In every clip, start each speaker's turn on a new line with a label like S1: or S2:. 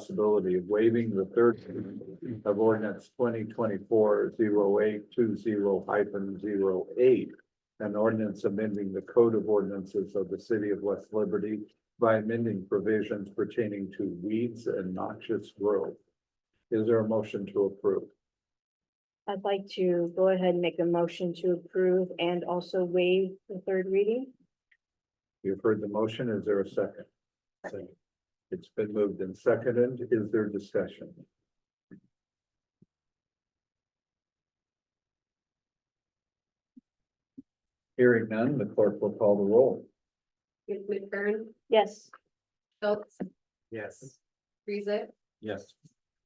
S1: possibility of waiving the third reading of ordinance twenty twenty-four zero eight two zero hyphen zero eight. An ordinance amending the code of ordinances of the city of West Liberty by amending provisions pertaining to weeds and noxious growth. Is there a motion to approve?
S2: I'd like to go ahead and make a motion to approve and also waive the third reading.
S1: You've heard the motion. Is there a second?
S2: Second.
S1: It's been moved and seconded. Is there discussion? Hearing none, the clerk will call the roll.
S3: McFerrin,
S2: Yes.
S3: Schultz,
S1: Yes.
S3: Friesick,
S1: Yes.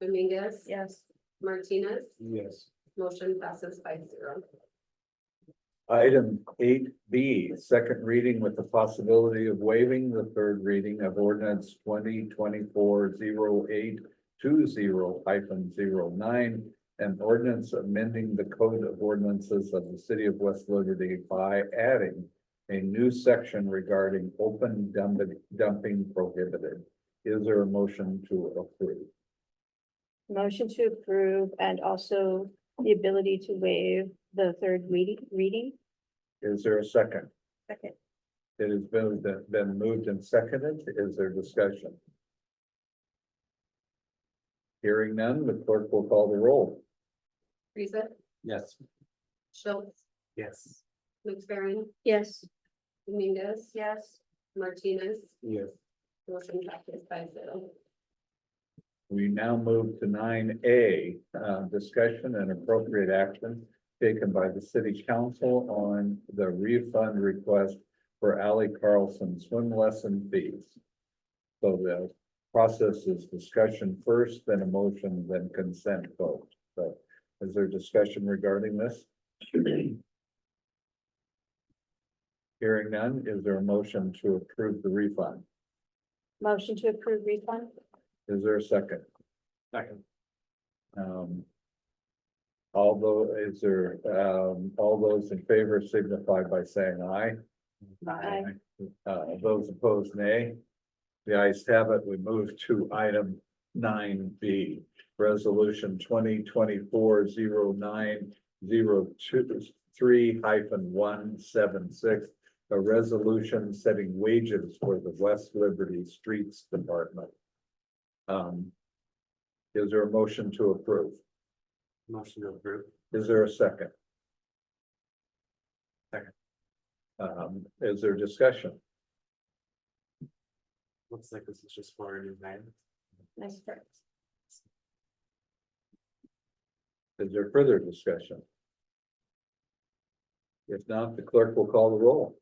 S3: Dominguez.
S2: Yes.
S3: Martinez,
S1: Yes.
S3: motion passes by zero.
S1: Item eight B, second reading with the possibility of waiving the third reading of ordinance twenty twenty-four zero eight two zero hyphen zero nine and ordinance amending the code of ordinances of the city of West Liberty by adding a new section regarding open dumping, dumping prohibited. Is there a motion to approve?
S2: Motion to approve and also the ability to waive the third reading, reading.
S1: Is there a second?
S2: Second.
S1: It has been, been moved and seconded. Is there discussion? Hearing none, the clerk will call the roll.
S3: Friesick,
S1: Yes.
S3: Schultz,
S1: Yes.
S3: McFerrin,
S2: Yes.
S3: Dominguez.
S2: Yes.
S3: Martinez,
S1: Yes.
S3: motion passes by zero.
S1: We now move to nine A, uh, discussion and appropriate action taken by the city council on the refund request for Ally Carlson swim lesson fees. So the process is discussion first, then a motion, then consent vote. So is there discussion regarding this? Hearing none, is there a motion to approve the refund?
S2: Motion to approve refund.
S1: Is there a second?
S4: Second.
S1: Um. Although, is there, um, all those in favor signify by saying aye.
S2: Aye.
S1: Uh, those opposed, nay. The ayes have it. We move to item nine B, resolution twenty twenty-four zero nine zero two three hyphen one seven six. A resolution setting wages for the West Liberty Streets Department. Um. Is there a motion to approve?
S4: Motion to approve.
S1: Is there a second?
S4: Second.
S1: Um, is there discussion?
S4: Looks like this is just for a new name.
S2: Nice start.
S1: Is there further discussion? If not, the clerk will call the roll.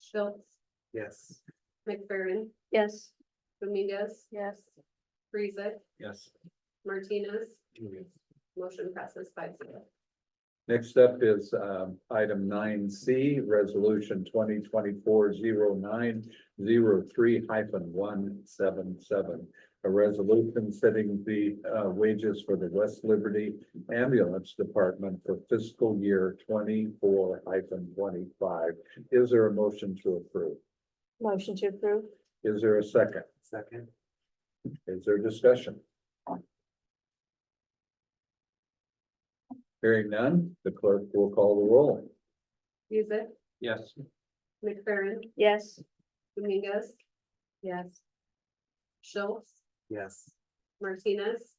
S3: Schultz,
S4: Yes.
S3: McFerrin,
S2: Yes.
S3: Dominguez,
S2: Yes.
S3: Friesick,
S1: Yes.
S3: Martinez,
S4: Yes.
S3: motion passes by zero.
S1: Next up is um item nine C, resolution twenty twenty-four zero nine zero three hyphen one seven seven. A resolution setting the uh wages for the West Liberty Ambulance Department for fiscal year twenty-four hyphen twenty-five. Is there a motion to approve?
S2: Motion to approve.
S1: Is there a second?
S4: Second.
S1: Is there discussion? Hearing none, the clerk will call the roll.
S3: Friesick,
S1: Yes.
S3: McFerrin,
S2: Yes.
S3: Dominguez,
S2: Yes.
S3: Schultz,
S4: Yes.
S3: Martinez,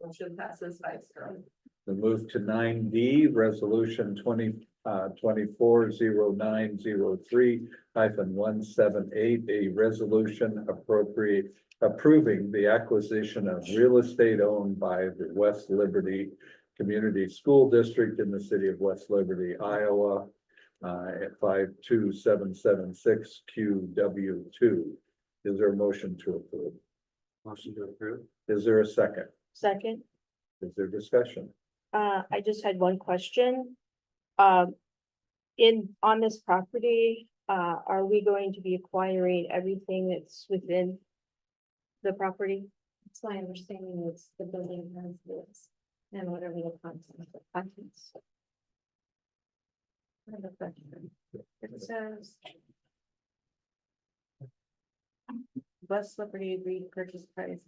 S3: motion passes by zero.
S1: We move to nine D, resolution twenty, uh, twenty-four zero nine zero three hyphen one seven eight, a resolution appropriate approving the acquisition of real estate owned by the West Liberty Community School District in the city of West Liberty, Iowa, uh, at five two seven seven six Q W two. Is there a motion to approve?
S4: Motion to approve.
S1: Is there a second?
S2: Second.
S1: Is there discussion?
S2: Uh, I just had one question. Um, in, on this property, uh, are we going to be acquiring everything that's within the property?
S3: It's my understanding it's the building has this and whatever the content, the contents. I have a question. It says.
S2: West Liberty agreed purchase price